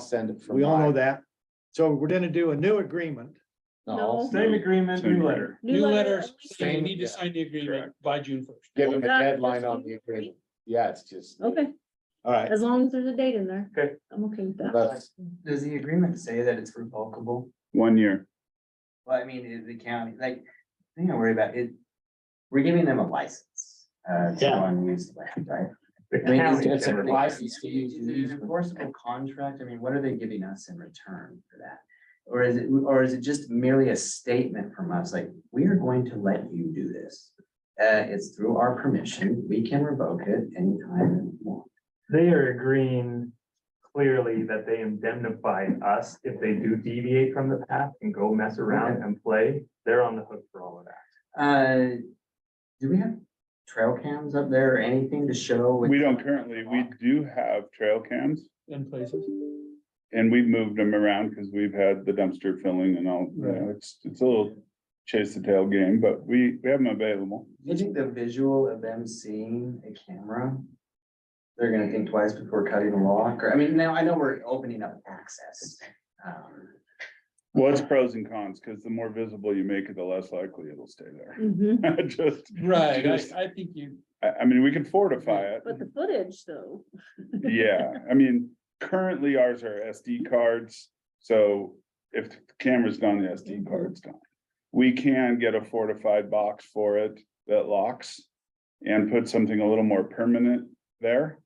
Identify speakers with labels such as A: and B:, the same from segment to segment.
A: send it from.
B: We all know
A: mine.
B: that. So we're gonna do a new agreement.
A: No, I'll
C: No.
D: Same
A: send it.
D: agreement, new letter.
C: New letters,
A: letter.
C: saying you
A: Same,
C: need to
A: yeah,
C: sign the agreement by June first.
A: Give them a
C: Well, that-
A: deadline on the agreement. Yeah, it's just,
C: Okay,
B: All right.
C: as long as there's a date in there.
D: Okay.
C: I'm okay with that.
A: that's,
E: Does the agreement say that it's revocable?
F: One year.
E: Well, I mean, is the county, like, the thing I worry about it, we're giving them a license. Uh, to go
B: Yeah.
E: and use the land, right?
A: The
E: I mean,
A: county
E: is-
A: gets a license to use
E: Is
A: the
E: it an
A: easement.
E: enforceable contract? I mean, what are they giving us in return for that? Or is it, or is it just merely a statement from us, like, we are going to let you do this? Uh, it's through our permission, we can revoke it anytime we want.
D: They are agreeing clearly that they indemnify us if they do deviate from the path and go mess around and play. They're on the hook for all of that.
E: Uh, do we have trail cams up there or anything to show?
F: We don't currently, we do have trail cams
C: In places.
F: and we've moved them around because we've had the dumpster filling and all, you know, it's, it's a little chase the tail game, but we, we have them available.
E: Do you think the visual of them seeing a camera? They're gonna think twice before cutting the lock, or, I mean, now I know we're opening up access. um,
F: Well, it's pros and cons because the more visible you make it, the less likely it'll stay there.
C: Mhm.
F: Just,
C: Right,
F: Just-
C: I, I think you,
F: I, I mean, we can fortify it.
C: but the footage though,
F: Yeah, I mean, currently ours are SD cards, so if the camera's gone, the
C: Mm-hmm.
F: SD card's gone. We can get a fortified box for it that locks and put something a little more permanent there.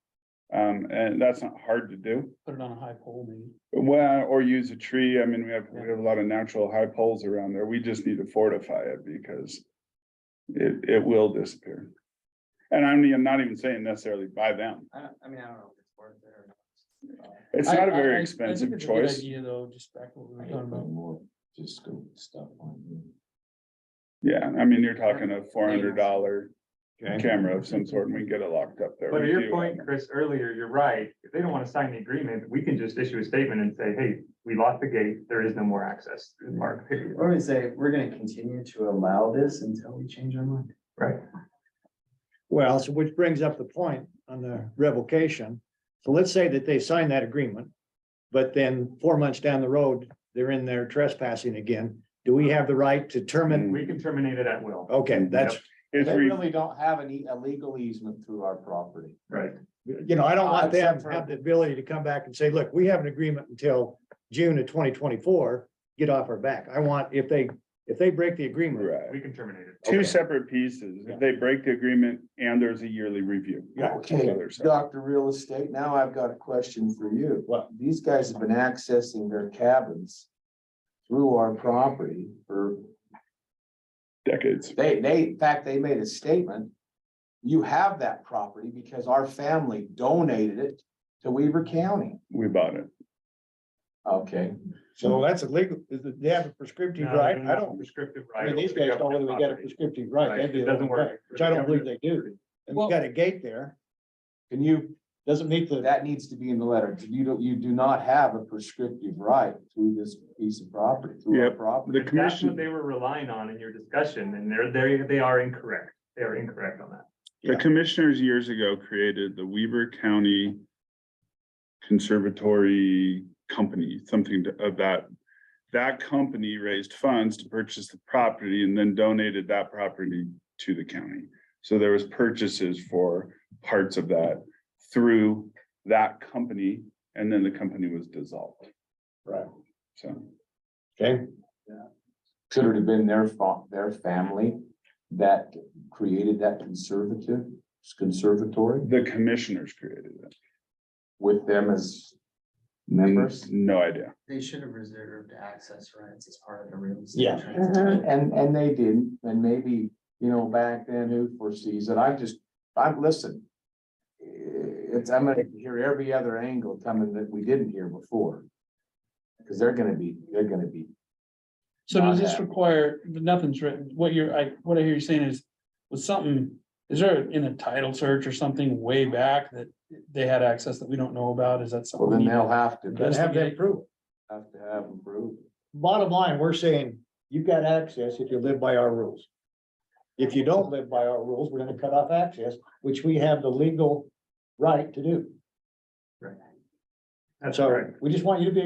F: Um, and that's not hard to do.
C: put it on a high pole maybe.
F: Well, or use a tree. I mean, we have, we have a lot of natural high poles around there. We just need to fortify it because it, it will disappear. And I mean, I'm not even saying necessarily by them.
E: I, don't- I mean, I don't know if it's worth it or not.
F: It's
C: I-
F: not a
C: I- I- I
F: very
C: think
F: expensive
C: it's a good
F: choice.
C: Idea though, just back to what we were
A: I
C: talking
A: don't know
C: about.
A: more, Just go stuff on you.
F: Yeah, I mean, you're talking a four hundred dollar camera of some sort and we can get it locked up there.
D: But to
F: We
D: your
F: do
D: point,
F: have-
D: Chris, earlier, you're right. If they don't want to sign the agreement, we can just issue a statement and say, hey, we locked the gate. There is no more access through the park. period.
E: Or we say, we're gonna continue to allow this until we change our mind.
D: Right.
B: Well, so which brings up the point on the revocation. So let's say that they sign that agreement. But then four months down the road, they're in there trespassing again. Do we have the right to terminate?
D: We can terminate it at will.
B: Okay, that's,
F: It's
A: They
F: re-
A: really don't have any illegal easement through our property.
D: Right.
B: you know, I don't want them
A: Except
B: to
A: for-
B: have the ability to come back and say, look, we have an agreement until June of twenty twenty-four. Get off our back. I want, if they, if they break the agreement,
F: right.
D: We can terminate it.
F: Two separate pieces. If they break the agreement and there's a yearly review.
A: Okay, Dr. Real Estate, now I've got a question for you. What? These guys have been accessing their cabins through our property for,
F: Decades.
A: they, they, in fact, they made a statement. You have that property because our family donated it to Weaver County.
F: We bought it.
A: Okay.
B: so that's illegal. They have a prescriptive
D: Uh, No,
B: right.
D: they're
B: I
D: not
B: don't,
D: Prescriptive right.
B: I mean, these
D: over the
B: guys don't
D: government
B: really get a
D: property.
B: prescriptive right. They
D: Right,
B: do
D: it
B: their own
D: doesn't
B: thing,
D: work.
B: Which I don't believe they do. And we
C: Well-
B: got a gate there. Can you, doesn't meet the,
A: That needs to be in the letter. You don't, you do not have a prescriptive right through this piece of property, through our
F: Yep.
A: property.
F: The
D: If That's what
F: commission,
D: they were relying on in your discussion, and they're, they, they are incorrect. They are incorrect on that.
F: the commissioners years ago created the Weaver County Conservatory Company, something to- of that. That company raised funds to purchase the property and then donated that property to the county. So there was purchases for parts of that through that company, and then the company was dissolved.
A: Right.
F: So.
B: okay,
A: Could it have been their fa- their family that created that conservative, conservatory
F: The commissioners created it.
A: with them as members?
F: Members? No idea.
E: They should have reserved access rights as part of the real
B: Yeah.
E: estate transaction.
A: And, and they didn't, and maybe, you know, back then, who foresees it, I just, I'm, listen. It's, I'm gonna hear every other angle coming that we didn't hear before. Cause they're gonna be, they're gonna be,
C: So does
A: Not
C: this
A: happening.
C: require, nothing's written, what you're, I, what I hear you saying is, was something, is there in a title search or something way back that they had access that we don't know about, is that
A: well,
C: something?
A: then
C: we need
A: they'll have to,
B: Gotta have that proof.
A: have to have them prove.
B: bottom line, we're saying you've got access if you live by our rules. If you don't live by our rules, we're gonna cut off access, which we have the legal right to do.
D: That's
B: So
D: correct.
B: we just want you to be